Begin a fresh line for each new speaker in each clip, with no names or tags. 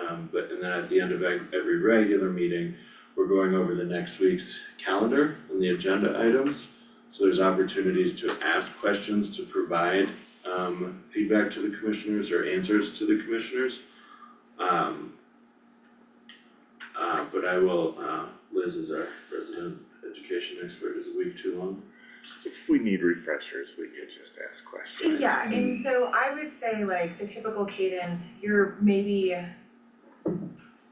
um, then at the end of ev- every regular meeting, we're going over the next week's calendar and the agenda items. So there's opportunities to ask questions, to provide um feedback to the commissioners or answers to the commissioners. Um. Uh, but I will, uh, Liz is our resident education expert, is a week too long?
If we need refreshers, we could just ask questions.
Yeah, and so I would say like the typical cadence, you're maybe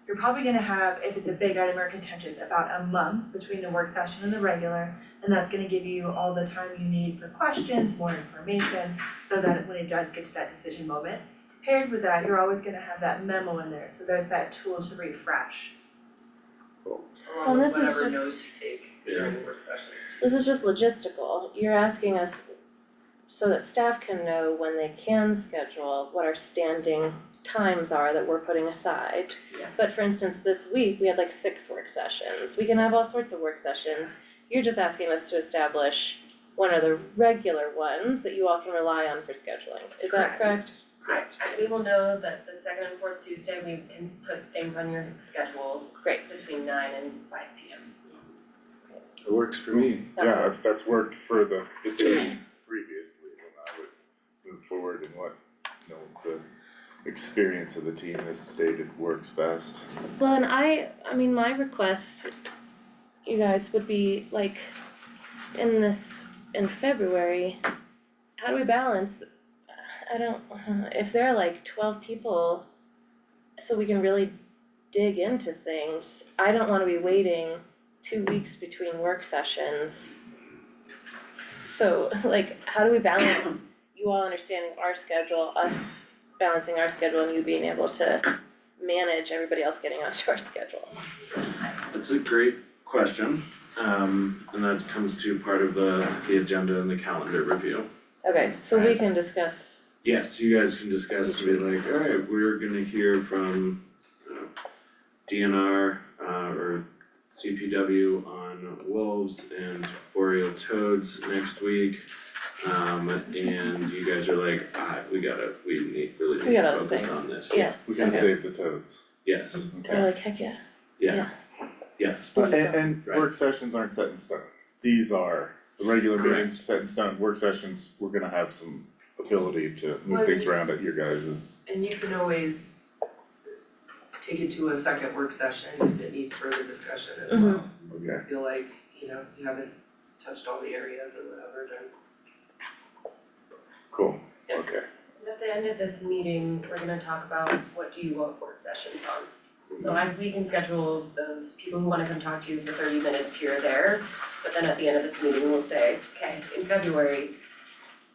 you're probably gonna have, if it's a big item or contentious, about a month between the work session and the regular. And that's gonna give you all the time you need for questions, more information, so that when it does get to that decision moment, paired with that, you're always gonna have that memo in there, so there's that tool to refresh.
Well,
along with
this is
whatever
just-
notes you take during the work sessions too.
This is just logistical, you're asking us so that staff can know when they can schedule what our standing times are that we're putting aside.
Yeah.
But for instance, this week, we had like six work sessions, we can have all sorts of work sessions. You're just asking us to establish when are the regular ones that you all can rely on for scheduling, is that
Correct.
correct?
Correct.
I, I, we will know that the second and fourth Tuesday, we can put things on your schedule
Great,
between nine and five P M.
It works for me.
Yeah, if that's worked for the, the day previously, then I would move forward and what, you know, the experience of the team has stated works best.
Well, and I, I mean, my request, you guys, would be like, in this, in February, how do we balance? I don't, uh, if there are like twelve people, so we can really dig into things, I don't wanna be waiting two weeks between work sessions. So, like, how do we balance you all understanding our schedule, us balancing our schedule and you being able to manage everybody else getting onto our schedule.
That's a great question, um, and that comes to part of the, the agenda and the calendar review.
Okay, so we can discuss,
Yes, you guys can discuss and be like, alright, we're gonna hear from, uh, you know, DNR, uh, or CPW on wolves and boreal toads next week. Um, and you guys are like, ah, we gotta, we need, really
We
need
got
to
other
focus
things.
on this.
yeah,
We can
Okay.
save the toads.
Yes,
we're like, heck yeah,
yeah,
Yeah.
yes,
But and and
Right.
work sessions aren't set in stone. These are, the regular meetings set in stone, work sessions, we're gonna have some ability to move
Well,
things around at your guys'.
And you can always take it to a second work session if it needs further discussion as well.
Mhm.
Okay.
feel like, you know, you haven't touched all the areas or whatever, then.
Cool,
Yeah.
okay.
At the end of this meeting, we're gonna talk about what do you want work sessions on. So I, we can schedule those people who wanna come talk to you for thirty minutes here or there, but then at the end of this meeting, we'll say, okay, in February,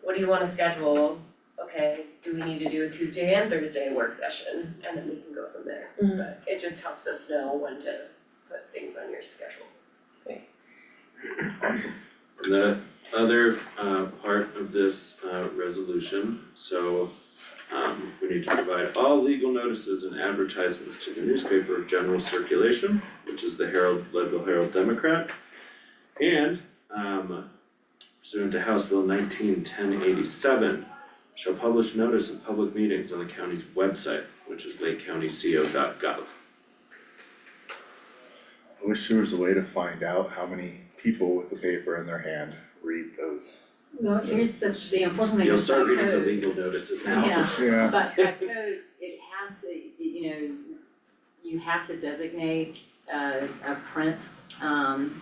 what do you wanna schedule? Okay, do we need to do a Tuesday and Thursday work session? And then we can go from there.
Mhm.
But it just helps us know when to put things on your schedule.
The other uh part of this uh resolution, so um we need to provide all legal notices and advertisements to the newspaper of general circulation, which is the Herald, Leadville Herald Democrat. And um pursuant to House Bill nineteen ten eighty seven, shall publish notice of public meetings on the county's website, which is lakecountyco.gov.
I wish there was a way to find out how many people with a paper in their hand read those.
Well, here's the, the unfortunately,
You'll
with that
start reading the
code,
legal notices now.
Yeah.
Yeah.
but that code, it has, to, you know, you have to designate a, a print, um,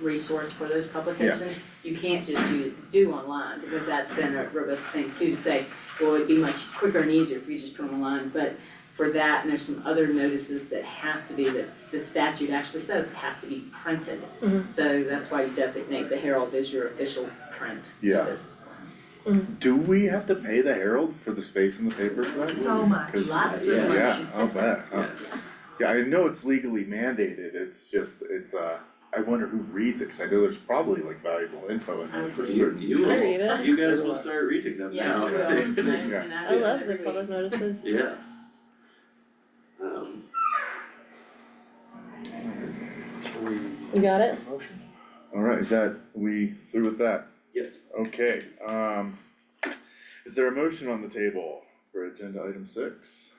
resource for those publications. You can't just do, do online, because that's been a robust thing too, to say, well, it'd be much quicker and easier if you just put them online, but for that, and there's some other notices that have to be, that the statute actually says has to be printed.
Mhm.
So that's why you designate the Herald as your official print
Yeah.
notice.
Do we have to pay the Herald for the space in the paper for that?
So much.
'Cause-
Lots
of money.
Yeah, I'll bet, huh?
Yes.
Yeah, I know it's legally mandated, it's just, it's, uh, I wonder who reads it, 'cause I know there's probably like valuable info in there for
You,
certain.
you will,
I read it.
you guys will start reading them
Yes,
now.
you will, and I,
Yeah.
and I
I
do
love the
every week.
public notices.
Yeah. Um,
You got it?
Alright, is that, we through with that?
yes,
Okay, um, is there a motion on the table for agenda item six?